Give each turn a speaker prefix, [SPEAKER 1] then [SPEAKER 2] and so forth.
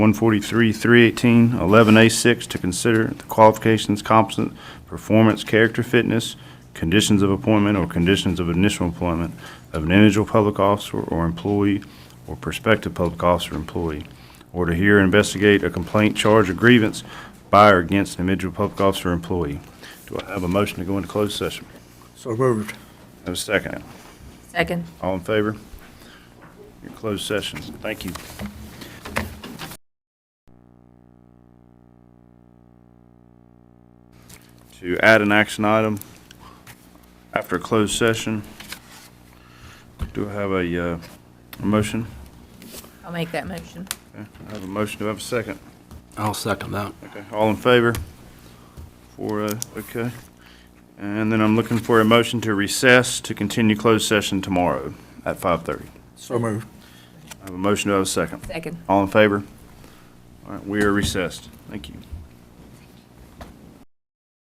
[SPEAKER 1] 143, 318, 11A6 to consider the qualifications, competence, performance, character, fitness, conditions of appointment or conditions of initial employment of an individual public officer or employee or prospective public officer or employee, or to hear or investigate a complaint, charge, or grievance by or against an individual public officer or employee. Do I have a motion to go into closed session?
[SPEAKER 2] So moved.
[SPEAKER 1] Have a second.
[SPEAKER 3] Second.
[SPEAKER 1] All in favor? Your closed session. Thank you. To add an action item after a closed session, do I have a, uh, a motion?
[SPEAKER 3] I'll make that motion.
[SPEAKER 1] Okay, I have a motion. Do I have a second?
[SPEAKER 4] I'll second that.
[SPEAKER 1] Okay, all in favor? Four, uh, okay. And then I'm looking for a motion to recess to continue closed session tomorrow at 5:30.
[SPEAKER 2] So moved.
[SPEAKER 1] I have a motion, do I have a second?
[SPEAKER 3] Second.
[SPEAKER 1] All in favor? All right, we are recessed. Thank you.